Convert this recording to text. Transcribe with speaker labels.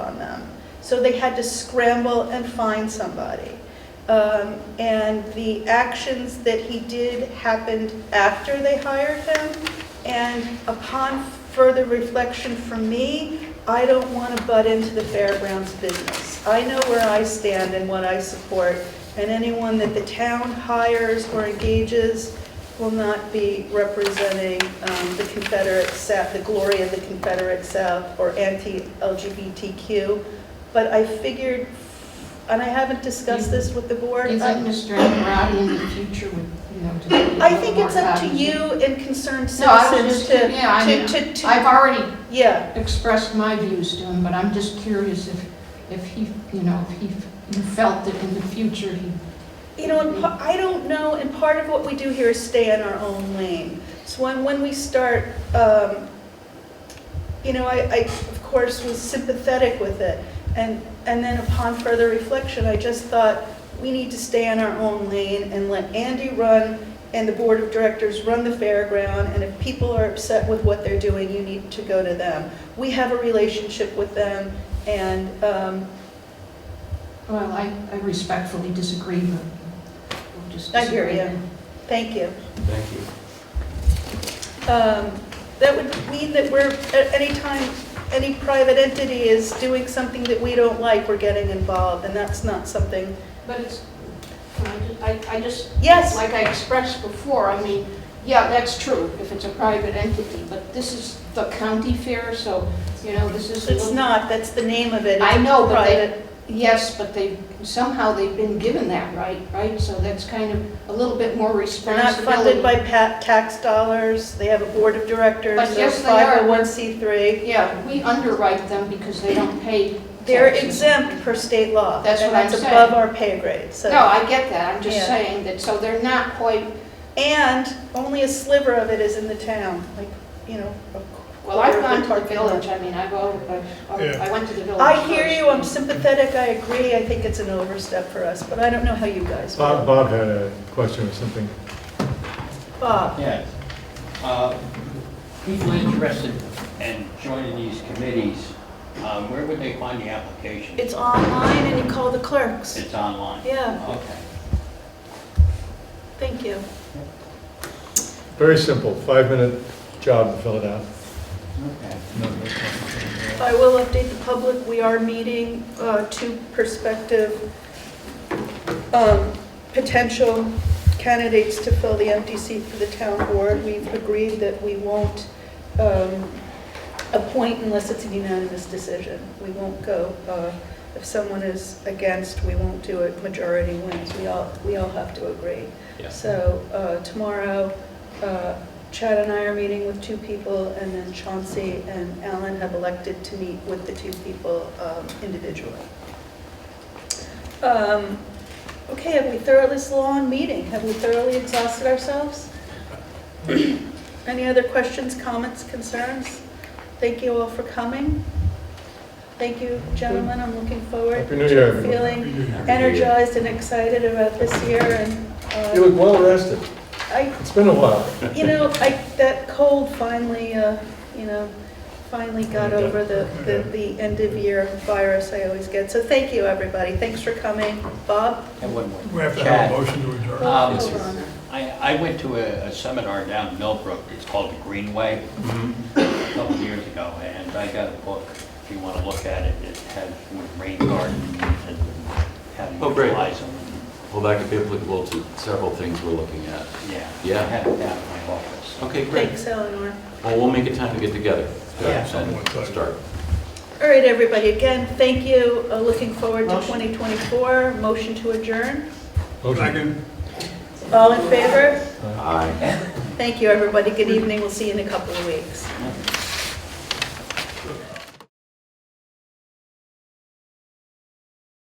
Speaker 1: So they had to scramble and find somebody. Um, And the actions that he did happened after they hired him. And upon further reflection from me, I don't want to butt into the fairgrounds business. I know where I stand and what I support, and anyone that the town hires or engages will not be representing um, the Confederate South, the glory of the Confederate South, or anti-LGBTQ. But I figured, and I haven't discussed this with the board.
Speaker 2: Do you
Speaker 1: I-
Speaker 2: think Mr. Angarati in the future would, you know, just be a little
Speaker 1: uh, I think it's
Speaker 2: more
Speaker 1: up to
Speaker 2: cognizant?
Speaker 1: you and concerned
Speaker 2: No, I was
Speaker 1: citizens
Speaker 2: just-
Speaker 1: to,
Speaker 2: yeah, I
Speaker 1: to,
Speaker 2: mean,
Speaker 1: to, to,
Speaker 2: I've already
Speaker 1: yeah.
Speaker 2: expressed my views to him, but I'm just curious if, if he, you know, if he you felt that in the future he,
Speaker 1: You know, and pa- I don't know, and part of what we do here is stay in our own lane. So when, when we start, um, you know, I, I, of course, was sympathetic with it. And, and then upon further reflection, I just thought, we need to stay in our own lane and let Andy run and the board of directors run the fairground. And if people are upset with what they're doing, you need to go to them. We have a relationship with them and, um,
Speaker 2: well, I, I respectfully disagree, but we'll just.
Speaker 1: I hear
Speaker 2: disagree.
Speaker 1: you. thank you.
Speaker 3: Thank you.
Speaker 1: Um, That would mean that we're, at any time, any private entity is doing something that we don't like, we're getting involved, and that's not something,
Speaker 4: But it's, can I ju- I, I just,
Speaker 1: yes,
Speaker 4: like I expressed before, I mean, yeah, that's true, if it's a private entity, but this is the county fair, so, you know, this is. a
Speaker 1: it's
Speaker 4: little-
Speaker 1: not, that's the name of it.
Speaker 4: I
Speaker 1: it's
Speaker 4: know, but they-
Speaker 1: private.
Speaker 4: Yes, but they, somehow they've been given that right, right? So that's kind of a little bit more
Speaker 1: They're not
Speaker 4: responsibility.
Speaker 1: funded by pa- tax dollars, they have a board of directors,
Speaker 4: But
Speaker 1: they're
Speaker 4: yes, they are.
Speaker 1: 501c3.
Speaker 4: Yeah, we underwrite them because they don't pay taxes.
Speaker 1: They're exempt per state law.
Speaker 4: That's what I'm
Speaker 1: And that's
Speaker 4: saying.
Speaker 1: above our pay grade, so.
Speaker 4: No, I get that, I'm
Speaker 1: Yeah.
Speaker 4: just saying that, so they're not quite,
Speaker 1: And only a sliver of it is in the town, like, you know, a
Speaker 4: well, I've
Speaker 1: Or
Speaker 4: gone to the
Speaker 1: parking lot.
Speaker 4: village, I mean, I've, al- I've-
Speaker 5: Yeah.
Speaker 4: I went to the village
Speaker 1: I hear you, I'm
Speaker 4: first.
Speaker 1: sympathetic, I agree, I think it's an overstep for us, but I don't know how you guys
Speaker 5: Bob,
Speaker 1: feel.
Speaker 5: Bob had a question or something.
Speaker 1: Bob,
Speaker 6: Yes. Uh, People interested in joining these committees, um, where would they find the application?
Speaker 1: it's online and you call the clerks.
Speaker 6: It's online?
Speaker 1: Yeah,
Speaker 6: Okay.
Speaker 1: thank you.
Speaker 5: Very simple, five-minute job to fill it out.
Speaker 6: Okay.
Speaker 5: No, that's not-
Speaker 1: I will update the public, we are meeting uh, two prospective um, potential candidates to fill the empty seat for the town board. We've agreed that we won't um, appoint unless it's a unanimous decision. We won't go, uh, if someone is against, we won't do it, majority wins, we all, we all have to agree. So uh, tomorrow, uh, Chad and I are meeting with two people, and then Chauncey and Alan have elected to meet with the two people um, individually. Um, Okay, have we thoroughly, this is a long meeting, have we thoroughly exhausted ourselves? Any other questions, comments, concerns? Thank you all for coming. Thank you, gentlemen, I'm looking forward
Speaker 5: Happy New Year,
Speaker 1: to
Speaker 5: everyone.
Speaker 1: feeling energized and excited about this year, and
Speaker 5: You
Speaker 1: um,
Speaker 5: look well rested.
Speaker 1: I
Speaker 5: It's been a while.
Speaker 1: you know, I, that cold finally, uh, you know, finally got over the, the, the end of year virus I always get. So thank you, everybody. Thanks for coming. Bob?
Speaker 6: And one more.
Speaker 7: We have to have
Speaker 6: Chad.
Speaker 7: a motion to adjourn.
Speaker 6: Um,
Speaker 1: Hold on.
Speaker 6: I, I went to a a seminar down in Millbrook, it's called the Greenway, a couple of years ago, and I got a book, if you want to look at it, it has with rain gardens and how to
Speaker 8: Oh, great.
Speaker 6: utilize them.
Speaker 8: Well, that could be applicable to several things we're looking at.
Speaker 6: Yeah. I
Speaker 8: Yeah.
Speaker 6: have it down in my office.
Speaker 8: Okay, great.
Speaker 1: Thanks, Eleanor.
Speaker 8: Well, we'll make a time to get together.
Speaker 6: Yeah.
Speaker 8: And start.
Speaker 1: All right, everybody, again, thank you. Uh, Looking forward to
Speaker 7: Motion.
Speaker 1: 2024. Motion to adjourn.
Speaker 5: Motion.
Speaker 7: Second.
Speaker 1: All in favor?
Speaker 8: Aye.
Speaker 1: Thank you, everybody. Good evening. We'll see you in a couple of weeks.